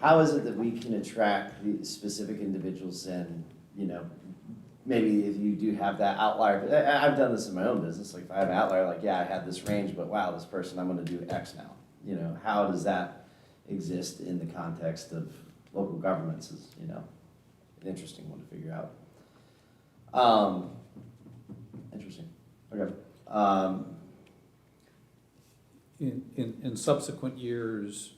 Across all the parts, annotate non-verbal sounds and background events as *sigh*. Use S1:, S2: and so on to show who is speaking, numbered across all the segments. S1: how is it that we can attract the specific individuals and, you know, maybe if you do have that outlier, I, I- I've done this in my own business, like if I have an outlier, like, yeah, I had this range, but wow, this person, I'm gonna do X now. You know, how does that exist in the context of local governments is, you know, an interesting one to figure out. Um, interesting, okay, um,
S2: In, in, in subsequent years,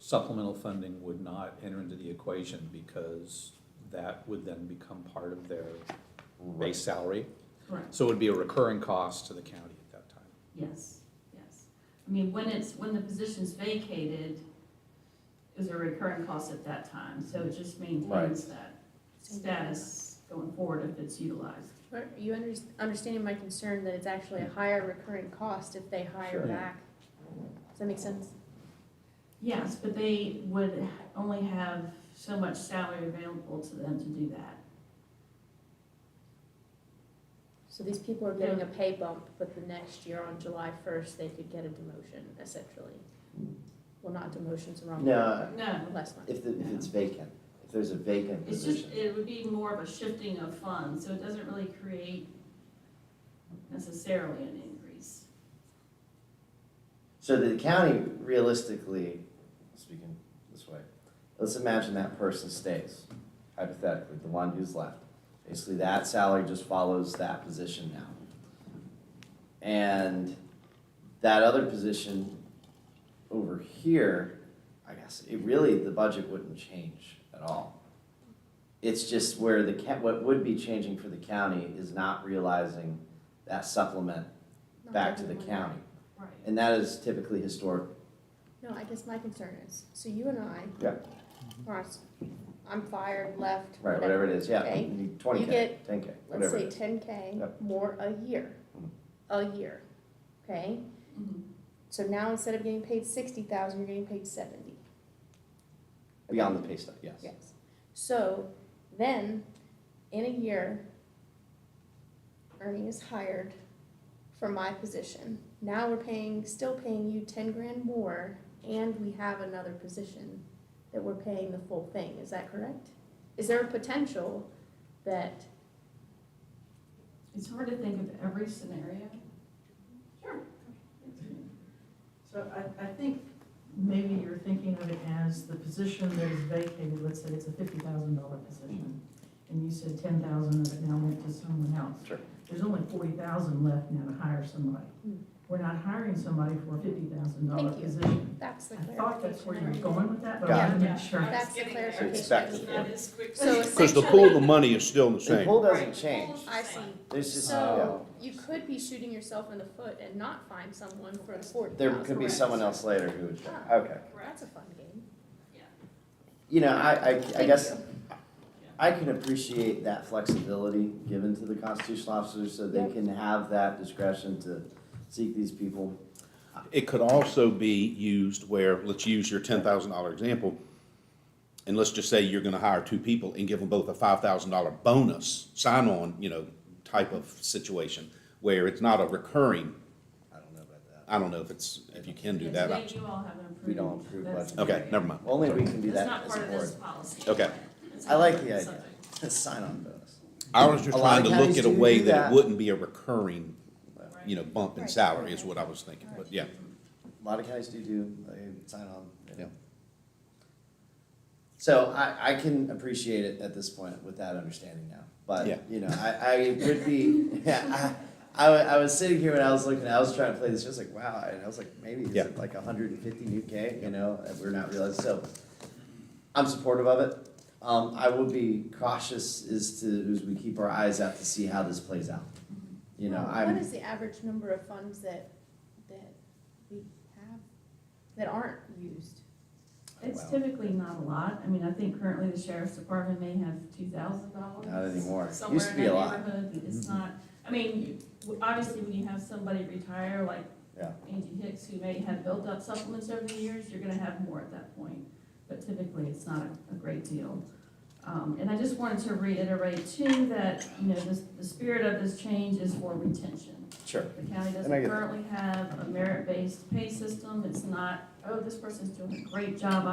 S2: supplemental funding would not enter into the equation because that would then become part of their
S1: right.
S2: base salary.
S3: Correct,
S2: So it would be a recurring cost to the county at that time.
S3: yes, yes. I mean, when it's, when the position's vacated, it was a recurring cost at that time, so it just maintains that status going forward if it's utilized.
S4: Are you under, understanding my concern that it's actually a higher recurring cost if they hire
S1: Sure.
S4: back? Does that make sense?
S3: Yes, but they would only have so much salary available to them to do that.
S4: So these people are getting a pay bump, but the next year on July first, they could get a demotion essentially. Well, not demotion's the wrong word.
S1: No,
S3: No,
S4: Less money.
S1: if, the- if it's vacant, if there's a vacant
S3: it's
S1: position.
S3: just, it would be more of a shifting of funds, so it doesn't really create necessarily an increase.
S1: So the county realistically, speaking this way, let's imagine that person stays, hypothetically, the one who's left. Basically, that salary just follows that position now. And that other position over here, I guess, it really, the budget wouldn't change at all. It's just where the, ca- what would be changing for the county is not realizing that supplement
S4: Not
S1: back to the
S4: everyone.
S1: county.
S3: Right.
S1: And that is typically historic.
S4: No, I guess my concern is, so you and I.
S1: Yeah.
S4: Or us- I'm fired, left,
S1: Right, whatever
S4: whatever.
S1: it is, yeah,
S4: Okay.
S1: twenty
S4: You
S1: K,
S4: get-
S1: ten K,
S4: Let's
S1: whatever it
S4: say
S1: is.
S4: ten K
S1: Yep.
S4: more a year,
S1: Mhm.
S4: a year, okay?
S3: Mhm.
S4: So now instead of getting paid sixty thousand, you're getting paid seventy,
S1: Beyond the pay stub, yes.
S4: yes. So then, in a year, Ernie is hired for my position. Now we're paying, still paying you ten grand more, and we have another position that we're paying the full thing, is that correct? Is there a potential that,
S3: It's hard to think of every scenario. Sure.
S5: So I, I think maybe you're thinking of it as the position that is vacated, let's say it's a fifty thousand dollar position. And you said ten thousand of it now went to someone else.
S1: Sure.
S5: There's only forty thousand left now to hire somebody.
S4: Hmm.
S5: We're not hiring somebody for a fifty thousand dollar
S4: Thank you.
S5: position.
S4: that's the
S5: I thought that's where you were
S4: clarification.
S5: going with that, but
S1: Got
S5: I
S4: it.
S5: wanted to make sure.
S4: That's the clarification I
S1: expected,
S4: need.
S1: yeah.
S4: So
S6: Because the
S4: essentially,
S6: pool of the money is still the
S1: The
S6: same.
S1: pool doesn't
S3: Right.
S1: change,
S4: I see.
S1: there's just, yeah,
S4: So you could be shooting yourself in the foot and not find someone for the forty
S1: there
S4: thousand.
S1: could be someone else later who would,
S4: Ah.
S1: okay.
S4: That's a fun game.
S1: You know, I, I, I
S4: Thank
S1: guess,
S4: you.
S1: I can appreciate that flexibility given to the constitutional officers so they
S4: Yep.
S1: can have that discretion to seek these people.
S6: It could also be used where, let's use your ten thousand dollar example, and let's just say you're gonna hire two people and give them both a five thousand dollar bonus, sign-on, you know, type of situation, where it's not a recurring,
S1: I don't know about that.
S6: I don't know if it's, if you can do that.
S3: It's the way you all have approved.
S1: We don't approve
S3: That's-
S1: budget.
S6: Okay, never mind.
S1: Only we can do that
S3: That's not
S1: as
S3: part
S1: a
S3: of this
S1: board.
S3: policy.
S6: Okay.
S3: It's
S1: I like
S3: not
S1: the idea, *laughs*
S3: subject.
S1: sign-on bonus.
S6: I was
S1: A
S6: just
S1: lot
S6: trying
S1: of
S6: to
S1: counties
S6: look at a
S1: do
S6: way
S1: do
S6: that
S1: that.
S6: it wouldn't be a recurring,
S3: Right.
S6: you know, bump in
S4: Right.
S6: salary is what I was thinking, but yeah.
S1: A lot of counties do do, they sign on, you know.
S6: Yeah.
S1: So I, I can appreciate it at this point with that understanding now,
S6: Yeah.
S1: but, you know, I, I would be, *laughs* yeah, I, I, wa- I was sitting here when I was looking, I was trying to play this, I was like, wow, and I was like, maybe is
S6: Yeah.
S1: it like hundred and fifty new K, you know, and we're not realizing, so. I'm supportive of it, um, I will be cautious as to, as we keep our eyes out to see how this plays out. You know,
S4: Well,
S1: I'm.
S4: What is the average number of funds that, that we have, that aren't used?
S3: It's
S1: Wow.
S3: typically not a lot. I mean, I think currently the sheriff's department may have two thousand dollars.
S1: Not anymore. It used
S3: Somewhere
S1: to
S3: in
S1: be a
S3: that
S1: lot. Mm-hmm.
S3: neighborhood. It's not, I mean, w- obviously when you have somebody retire like
S1: Yeah.
S3: Angie Hicks, who may have built up supplements over the years, you're gonna have more at that point. But typically, it's not a- a great deal. Um, and I just wanted to reiterate too, that, you know, this, the spirit of this change is for retention.
S1: Sure.
S3: The county
S1: And I
S3: doesn't
S1: get that.
S3: currently have a merit-based pay system. It's not, oh, this person's doing a great job,